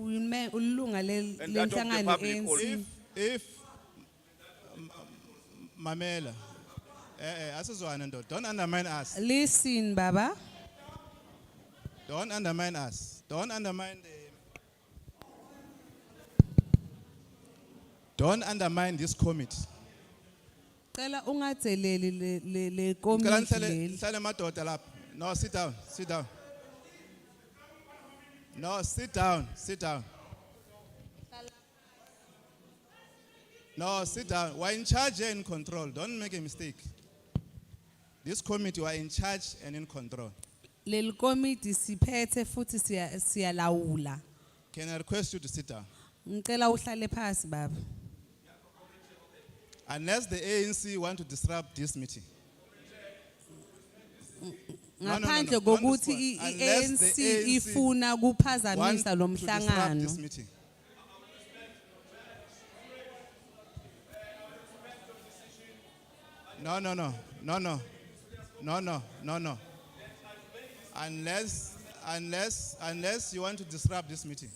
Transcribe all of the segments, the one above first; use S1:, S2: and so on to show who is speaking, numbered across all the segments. S1: ume- ulunga le- e
S2: And adopt the
S1: lenhlangano
S2: public
S1: ANC
S2: policy.
S3: If, if, m- m- mamela, eh, eh, asizwana ndoda, don't undermine us,
S1: listen baba
S3: don't undermine us, don't undermine the, don't undermine this committee.
S1: cela ungadzeleli le- le- le
S3: Ngicela
S1: committee
S3: nihlale
S1: leli
S3: nihlale madoda lapha. No, sit down, sit down. No, sit down, sit down. No, sit down. We're in charge and in control. Don't make a mistake. This committee, we're in charge and in control.
S1: leli committee siphethe futhi siya- siyalawula
S3: Can I request you to sit down?
S1: ngicela uhlale phansi baba
S3: Unless the ANC want to disrupt this meeting. No, no, no,
S1: ngaphandle
S3: no.
S1: kokuthi
S3: Don't
S1: i-
S3: respond.
S1: i-
S3: Unless the E
S1: ANC
S3: ANC
S1: ifuna
S3: Want
S1: kuphazamisa
S3: to
S1: lo
S3: disrupt
S1: mhlangano
S3: this meeting. No, no, no, no, no, no, no, no, no. Unless, unless, unless you want to disrupt this meeting.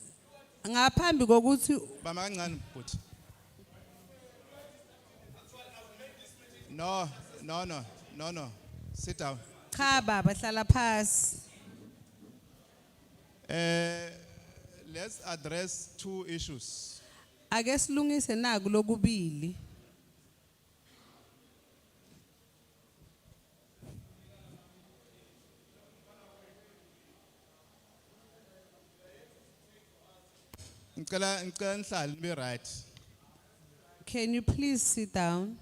S1: ngaphambi kokuthi
S3: Bama kancane bhuti. No, no, no, no, no. Sit down.
S1: cha baba hlala phansi
S3: Eh, let's address two issues.
S1: ake silungise naku lokubili
S3: Ngicela ngicela nihlale nibe right.
S1: can you please sit down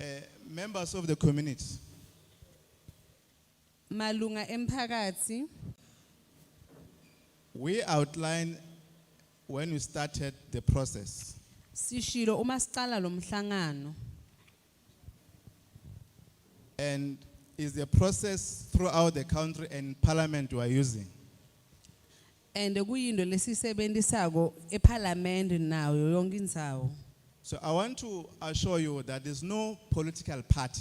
S3: Uh, members of the community,
S1: malunga emphakathi
S3: we outlined when we started the process
S1: sishilo uma sicala lo mhlangano
S3: and is the process throughout the country and parliament we are using.
S1: and kuyinto lesisebenzisako eParliament nayo yonke indzawo
S3: So I want to assure you that there's no political party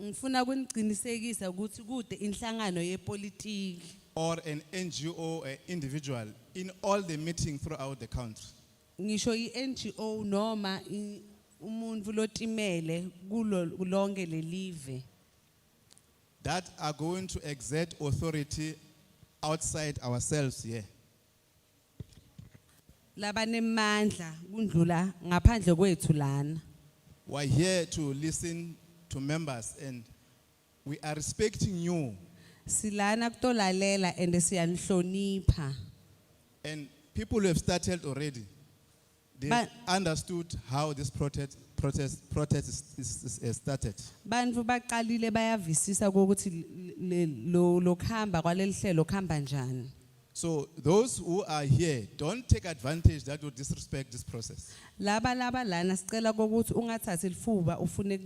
S1: ngifuna kuniqinisekisa ukuthi kude inhlangano yepolitiki
S3: or an NGO or individual in all the meetings throughout the country.
S1: ngisho iNGO noma i- umuntu lotimele kulo lonke lelive
S3: that are going to exert authority outside ourselves here.
S1: labanemandla kundlula ngaphandle kwethu lana
S3: We're here to listen to members and we are respecting you
S1: silana kutolalela and siyanihlonipha
S3: and people who have started already. They
S1: But-
S3: understood how this protest, protest, protest is, is, is started.
S1: bantu baqalile bayavisisa ukuthi lo lokhamba kwalelihlelo khamba njani
S3: So those who are here, don't take advantage that will disrespect this process.
S1: laba laba lana sicela ukuthi ungathathi lifuba ufune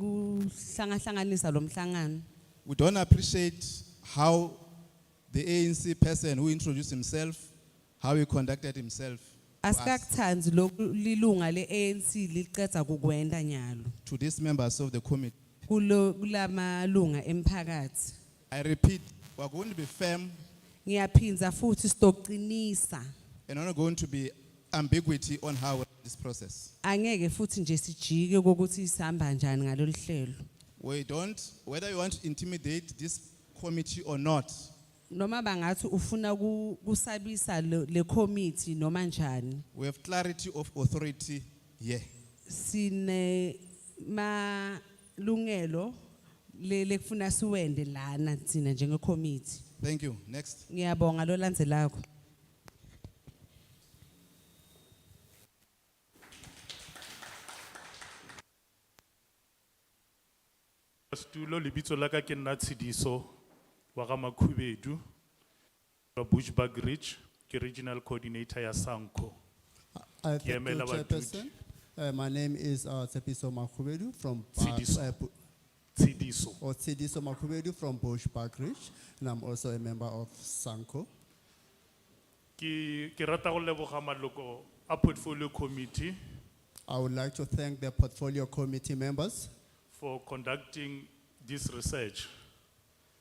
S1: kuhlangahlanganisa lo mhlangano
S3: We don't appreciate how the ANC person who introduced himself, how he conducted himself. to us.
S1: asikakuthandi lokulunga leANC liqeda kukwenda nyalo
S3: to these members of the committee.
S1: kulo kulamalunga emphakathi
S3: I repeat, we're going to be firm
S1: ngiyaphindza futhi stoqinisa
S3: and we're not going to be ambiguity on how we run this process.
S1: angeke futhi nje sijike kokuthi isihamba njani ngalolihlelo
S3: We don't, whether you want to intimidate this committee or not,
S1: noma bangathi ufuna ku- kusabisa le le committee noma njani
S3: we have clarity of authority here.
S1: sine malungelo le lekufuna siwende lana sina njenge committee
S3: Thank you. Next.
S1: ngiyabonga lo landzelako
S4: Stulo lebitso la ka ke nna Tshidiso wa ga Makhubedu wa Bushbuck Ridge ke regional coordinator ya Sanko.
S5: Uh, thank
S4: Ke
S5: you,
S4: emela
S5: Chairperson. Uh, my name is uh, Tsepiso Makhubedu from
S4: Tshidiso.
S5: uh, Bu-
S4: Tshidiso.
S5: or Tsidiso Makhubedu from Bush Park Ridge, and I'm also a member of Sanko.
S4: Ke ke rata go leboga maloko a portfolio committee
S5: I would like to thank the portfolio committee members
S4: for conducting this research.